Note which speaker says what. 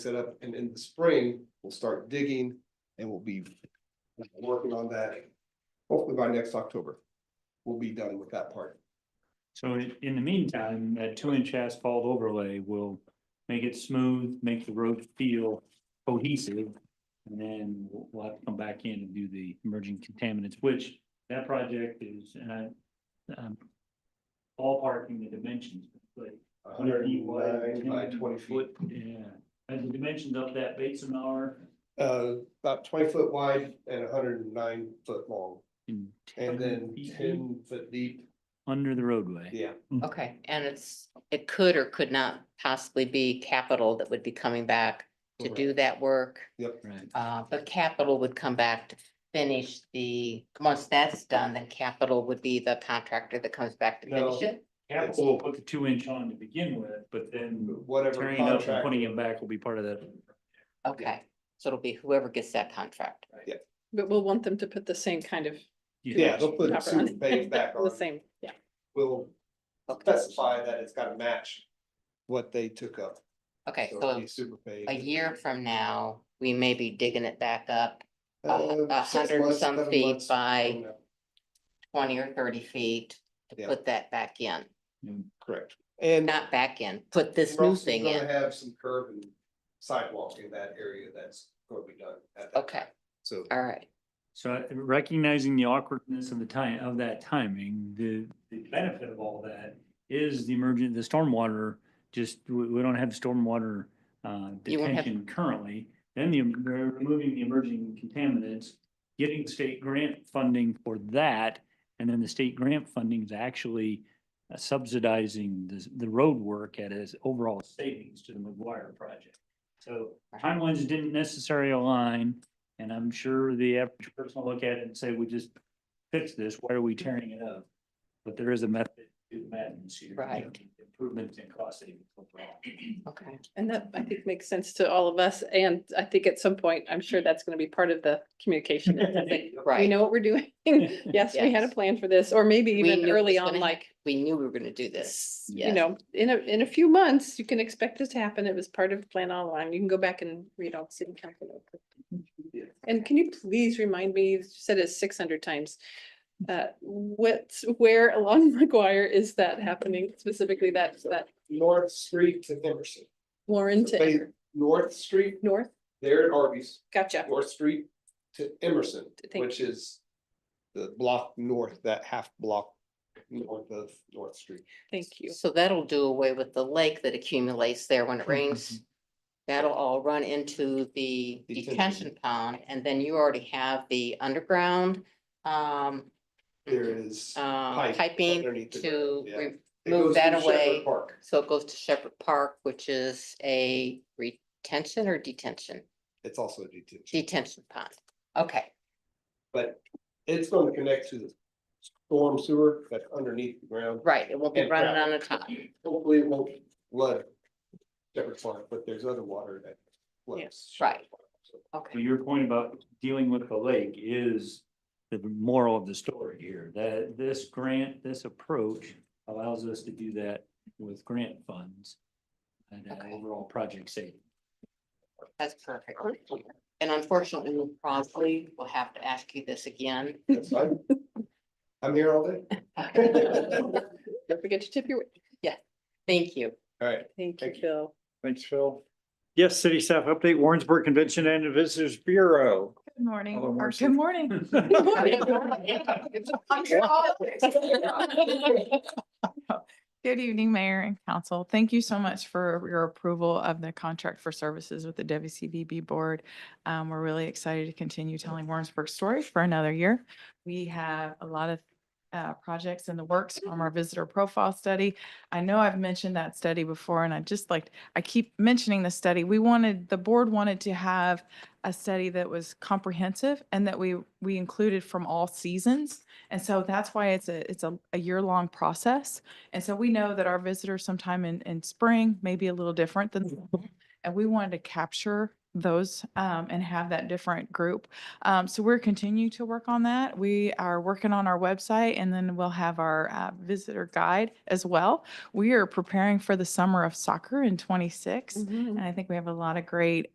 Speaker 1: set up and in the spring, we'll start digging and we'll be working on that. Hopefully by next October, we'll be done with that part.
Speaker 2: So in, in the meantime, that two inch asphalt overlay will make it smooth, make the road feel cohesive. And then we'll, we'll have to come back in and do the emerging contaminants, which that project is, and I, um. Ballparking the dimensions, but. 100 wide,
Speaker 1: 109 by
Speaker 2: 10
Speaker 1: twenty feet,
Speaker 2: foot, Yeah, and the dimensions of that basin are.
Speaker 1: uh, about twenty foot wide and hundred and nine foot long,
Speaker 2: in
Speaker 1: and
Speaker 2: 10
Speaker 1: then
Speaker 2: feet
Speaker 1: ten foot deep,
Speaker 2: Under the roadway.
Speaker 1: yeah.
Speaker 3: Okay, and it's, it could or could not possibly be capital that would be coming back to do that work.
Speaker 1: Yep,
Speaker 2: Right,
Speaker 3: Uh, but capital would come back to finish the, once that's done, then capital would be the contractor that comes back to finish
Speaker 1: No.
Speaker 3: it.
Speaker 2: capital will put the two inch on to begin with, but then
Speaker 1: whatever
Speaker 2: tearing it up and
Speaker 1: contract,
Speaker 2: putting it back will be part of that.
Speaker 3: Okay, so it'll be whoever gets that contract.
Speaker 4: But we'll want them to put the same kind of.
Speaker 1: yeah, they'll put
Speaker 4: wrapper on
Speaker 1: super
Speaker 4: it.
Speaker 1: base back on.
Speaker 4: The same, yeah.
Speaker 1: We'll
Speaker 3: Okay,
Speaker 1: specify that it's gotta match what they took up.
Speaker 3: Okay,
Speaker 1: So it'll
Speaker 3: so
Speaker 1: be super base.
Speaker 3: a year from now, we may be digging it back up
Speaker 1: Uh,
Speaker 3: a
Speaker 1: six
Speaker 3: hundred and
Speaker 1: months,
Speaker 3: some
Speaker 1: seven
Speaker 3: feet
Speaker 1: months, I don't
Speaker 3: by
Speaker 1: know.
Speaker 3: twenty or thirty feet to
Speaker 1: Yeah.
Speaker 3: put that back in,
Speaker 1: Correct. And.
Speaker 3: not back in, put this
Speaker 1: we're
Speaker 3: new
Speaker 1: also
Speaker 3: thing
Speaker 1: gonna
Speaker 3: in.
Speaker 1: Have some curb and sidewalk in that area that's gonna be done at that.
Speaker 3: Okay,
Speaker 1: time. So
Speaker 3: all right.
Speaker 2: So uh, recognizing the awkwardness of the time, of that timing, the, the benefit of all that is the emergent, the stormwater, just, we, we don't have stormwater uh,
Speaker 3: You won't have-
Speaker 2: detention currently. Then the, they're removing the emerging contaminants, getting state grant funding for that. And then the state grant funding is actually uh, subsidizing the, the road work at its overall savings to the McGuire project. So timelines didn't necessarily align. And I'm sure the average person will look at it and say, we just fixed this, why are we tearing it up? But there is a method to the madness here.
Speaker 3: Right.
Speaker 2: Improvements and cost savings. overall.
Speaker 3: Okay,
Speaker 4: And that, I think, makes sense to all of us. And I think at some point, I'm sure that's gonna be part of the communication. It's like, We
Speaker 3: right.
Speaker 4: know what we're doing. Yes, we had a
Speaker 3: Yes.
Speaker 4: plan for this, or maybe
Speaker 3: We knew
Speaker 4: even
Speaker 3: it
Speaker 4: early
Speaker 3: was
Speaker 4: on,
Speaker 3: gonna
Speaker 4: like,
Speaker 3: We knew we were gonna do this.
Speaker 4: this,
Speaker 3: Yes.
Speaker 4: you know, in a, in a few months, you can expect this to happen. It was part of the plan all along. You can go back and read all the city council. notes. And can you please remind me, you've said it six hundred times, uh, what, where along McGuire is that happening specifically? That's that
Speaker 1: North Street to Emerson,
Speaker 4: Warren to
Speaker 1: So they-
Speaker 4: Ever-
Speaker 1: North Street
Speaker 4: North?
Speaker 1: there at Arby's,
Speaker 4: Gotcha.
Speaker 1: North Street to Emerson,
Speaker 4: Thank you.
Speaker 1: which is the block north, that half block north of North Street.
Speaker 4: Thank you.
Speaker 3: So that'll do away with the lake that accumulates there when it rains. That'll all run into the
Speaker 1: Detention.
Speaker 3: detention pond, and then you already have the underground, um.
Speaker 1: There is.
Speaker 3: Uh,
Speaker 1: pipe
Speaker 3: piping
Speaker 1: underneath the
Speaker 3: to,
Speaker 1: ground, yeah.
Speaker 3: re-
Speaker 1: It
Speaker 3: move
Speaker 1: goes
Speaker 3: that
Speaker 1: through Shepherd
Speaker 3: away.
Speaker 1: Park.
Speaker 3: so it goes to Shepherd Park, which is a retention or detention,
Speaker 1: It's also a detention,
Speaker 3: detention pond. Okay,
Speaker 1: but it's going to connect to the storm sewer that's underneath the ground.
Speaker 3: right, it won't be
Speaker 1: And
Speaker 3: running
Speaker 1: gravel.
Speaker 3: on the top.
Speaker 1: Hopefully it won't flood Shepherd Farm, but there's other water that floods.
Speaker 3: Yeah, right.
Speaker 1: Shepherd Farm, so.
Speaker 2: So
Speaker 3: Okay,
Speaker 2: your point about dealing with the lake is the moral of the story here, that this grant, this approach allows us to do that with grant funds and uh,
Speaker 3: Okay.
Speaker 2: overall project savings.
Speaker 3: that's perfect. And unfortunately, we probably will have to ask you this again.
Speaker 1: That's fine. I'm here all day.
Speaker 3: Thank
Speaker 4: Don't forget to tip your,
Speaker 3: you.
Speaker 1: All right,
Speaker 4: thank you,
Speaker 1: Thank you.
Speaker 4: Phil.
Speaker 5: Thanks, Phil. Yes, city staff update, Warrensburg Convention and Visitors Bureau.
Speaker 6: Good morning,
Speaker 5: Hello,
Speaker 6: or
Speaker 5: Marcy.
Speaker 6: good morning. Good evening, Mayor and Council. Thank you so much for your approval of the contract for services with the WCBB Board. Um, we're really excited to continue telling Warrensburg's story for another year. We have a lot of uh, projects in the works from our visitor profile study. I know I've mentioned that study before and I just like, I keep mentioning the study. We wanted, the board wanted to have a study that was comprehensive and that we, we included from all seasons. And so that's why it's a, it's a, a year-long process. And so we know that our
Speaker 3: Mm-hmm.
Speaker 6: visitors sometime in, in spring may be a little different than, and we wanted to capture those um, and have that different group. Um, So we're continuing to work on that. We are working on our website and then we'll have our uh, visitor guide as well. We are preparing for the summer of soccer in 26.
Speaker 4: Mhm.
Speaker 6: And I think we have a lot of great